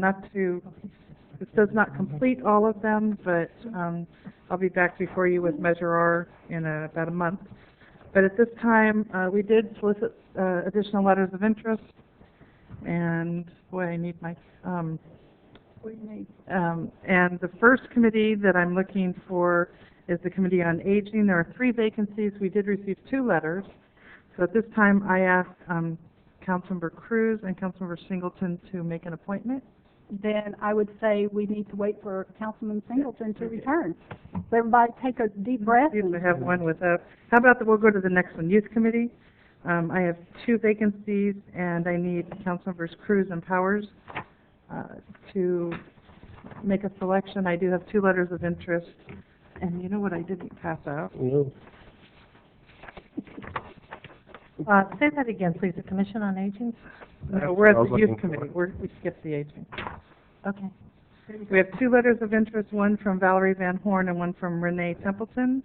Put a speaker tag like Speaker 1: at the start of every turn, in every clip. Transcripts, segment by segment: Speaker 1: not to, this does not complete all of them, but, um, I'll be back before you with Measure R in uh, about a month. But at this time, uh, we did solicit, uh, additional letters of interest, and, boy, I need my, um, um, and the first committee that I'm looking for is the Committee on Aging. There are three vacancies. We did receive two letters. So at this time, I ask, um, Councilmember Cruz and Councilmember Singleton to make an appointment.
Speaker 2: then I would say we need to wait for Councilman Singleton to return. So everybody take a deep breath.
Speaker 1: See if we Mm-hmm. have one with, uh, how about that we'll go to the next one, Youth Committee. Um, I have two vacancies, and I need Councilmembers Cruz and Powers, uh, to make a selection. I do have two letters of interest, and you know what I didn't pass out?
Speaker 3: No.
Speaker 4: Uh, say that again, please, the Commission on Aging?
Speaker 1: No, we're at
Speaker 3: I was
Speaker 1: the
Speaker 3: looking
Speaker 1: Youth
Speaker 3: for
Speaker 1: Committee, we're, we skipped the aging.
Speaker 4: Okay.
Speaker 1: We have two letters of interest, one from Valerie Van Horn and one from Renee Templeton.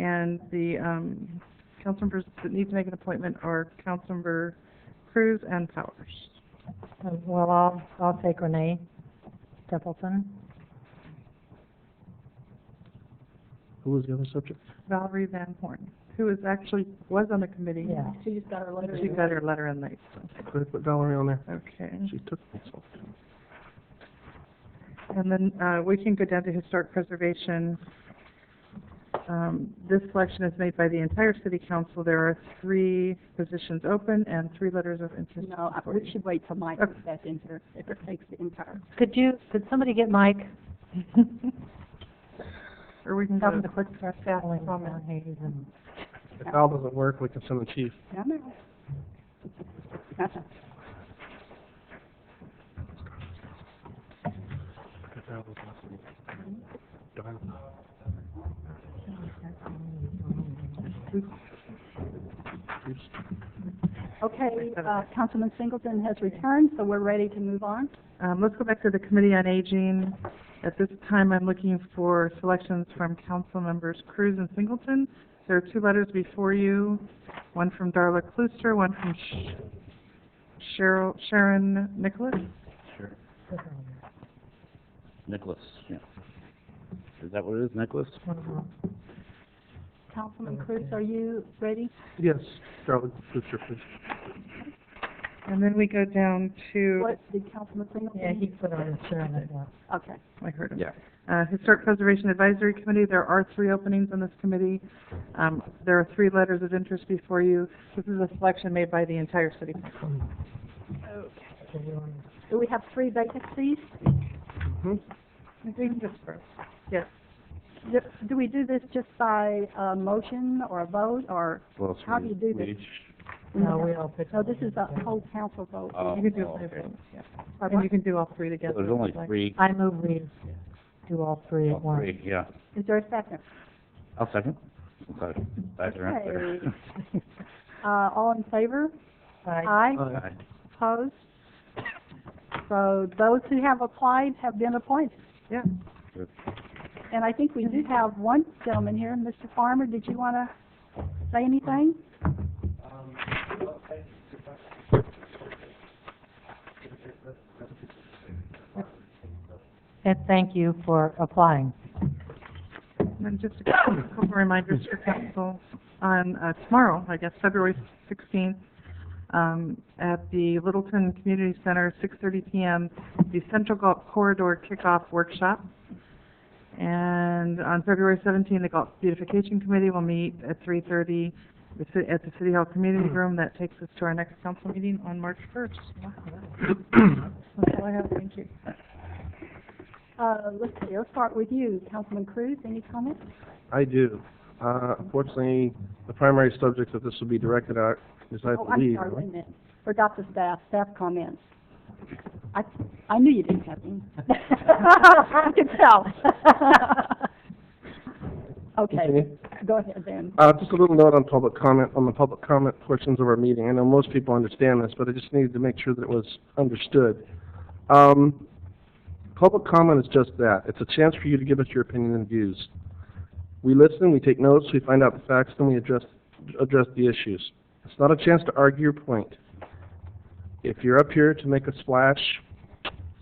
Speaker 1: And the, um, council members that need to make an appointment are Councilmember Cruz and Powers.
Speaker 4: Uh, Well, I'll, I'll take Renee Templeton.
Speaker 3: Who was the other subject?
Speaker 1: Valerie Van Horn, who is actually, was on the committee.
Speaker 4: Yeah.
Speaker 2: She just got her letter.
Speaker 1: She got her letter in late, so,
Speaker 3: Could I put Valerie on there?
Speaker 1: okay.
Speaker 3: She
Speaker 2: Mm-hmm.
Speaker 3: took myself.
Speaker 1: And then, uh, we can go down to historic preservation. Um, this selection is made by the entire city council. There are three positions open and three letters of interest.
Speaker 2: No, I- we should wait till Mike
Speaker 1: Okay.
Speaker 2: gets back in here, if it takes the entire.
Speaker 4: Could you, could somebody get Mike?
Speaker 1: Or we can
Speaker 4: Tell
Speaker 1: go,
Speaker 4: him to quit stress traveling around Hayes and
Speaker 3: If Al doesn't work, we can send the chief.
Speaker 2: I know. Uh-uh. Okay, uh, Councilman Singleton has returned, so we're ready to move on.
Speaker 1: um, let's go back to the Committee on Aging. At this time, I'm looking for selections from council members Cruz and Singleton. There are two letters before you, one from Darla Klooster, one from Sh- Cheryl, Sharon Nicholas.
Speaker 5: Sure. Nicholas, yeah. Is that what it is, Nicholas?
Speaker 2: Councilman Cruz, are you ready?
Speaker 3: Yes, Darla, Brewster, please.
Speaker 1: And then we go down to,
Speaker 2: What, did Councilman Singleton?
Speaker 4: Yeah, he put on the shirt as well.
Speaker 2: Okay.
Speaker 1: I heard him.
Speaker 5: Yeah.
Speaker 1: Uh, Historic Preservation Advisory Committee, there are three openings on this committee. Um, there are three letters of interest before you. This is a selection made by the entire city.
Speaker 2: Do we have three vacancies?
Speaker 3: Mhm.
Speaker 1: Yes.
Speaker 2: Do, do we do this just by, uh, motion or a vote, or?
Speaker 5: Well, so
Speaker 2: How do
Speaker 5: we-
Speaker 2: you do this?
Speaker 5: we each-
Speaker 4: No, we all picked.
Speaker 2: No, this is a whole council vote.
Speaker 5: oh,
Speaker 1: You can do,
Speaker 5: oh,
Speaker 1: all three,
Speaker 5: okay.
Speaker 1: yeah. And you can do all three together.
Speaker 5: There's
Speaker 1: if
Speaker 5: only
Speaker 1: you'd like.
Speaker 5: three,
Speaker 4: I move we do all three at
Speaker 5: all
Speaker 4: once.
Speaker 5: three, yeah.
Speaker 2: Is there a second?
Speaker 5: I'll second. Okay, back there, up there.
Speaker 2: Uh, all in favor?
Speaker 4: Aye.
Speaker 2: Aye.
Speaker 3: Aye.
Speaker 5: Aye.
Speaker 2: Opposed? So those who have applied have been appointed.
Speaker 1: Yeah.
Speaker 2: And I think we do have one gentleman here, Mr. Farmer, did you want to say anything?
Speaker 4: And thank you for applying.
Speaker 1: And then just a couple reminders for council on, uh, tomorrow, I guess, February sixteenth, um, at the Littleton Community Center, six thirty PM, the Central Gulf Corridor Kickoff Workshop. And on February seventeenth, the Gulf Beautification Committee will meet at three thirty at the City Hall Community Room. That takes us to our next council meeting on March first. That's all I have, thank you.
Speaker 2: Uh, let's see, let's start with you, Councilman Cruz, any comments?
Speaker 3: I do. Uh, unfortunately, the primary subject that this will be directed at is, I
Speaker 2: Oh, I'm
Speaker 3: believe,
Speaker 2: sorry, wait a minute, forgot the staff, staff comments. I, I knew you didn't have any. I could tell. Okay,
Speaker 3: Continue.
Speaker 2: go ahead then.
Speaker 3: Uh, just a little note on public comment, on the public comment portions of our meeting. I know most people understand this, but I just needed to make sure that it was understood. Um, public comment is just that. It's a chance for you to give us your opinion and views. We listen, we take notes, we find out the facts, then we address, address the issues. It's not a chance to argue your point. If you're up here to make a splash